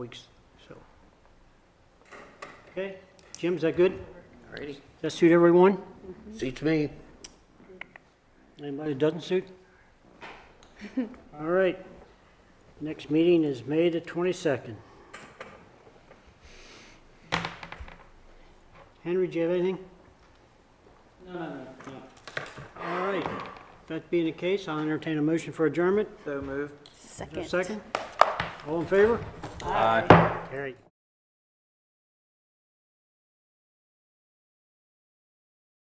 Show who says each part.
Speaker 1: weeks, so. Okay, Jim, is that good?
Speaker 2: Alrighty,
Speaker 1: Does that suit everyone?
Speaker 2: suits me.
Speaker 1: Anybody that doesn't suit? All right, next meeting is May the 22nd. Henry, do you have anything? No, no, no. All right, that being the case, I'll entertain a motion for adjournment.
Speaker 3: So moved.
Speaker 1: Is there a
Speaker 4: Second.
Speaker 1: Second? All in favor? Aye. Carried.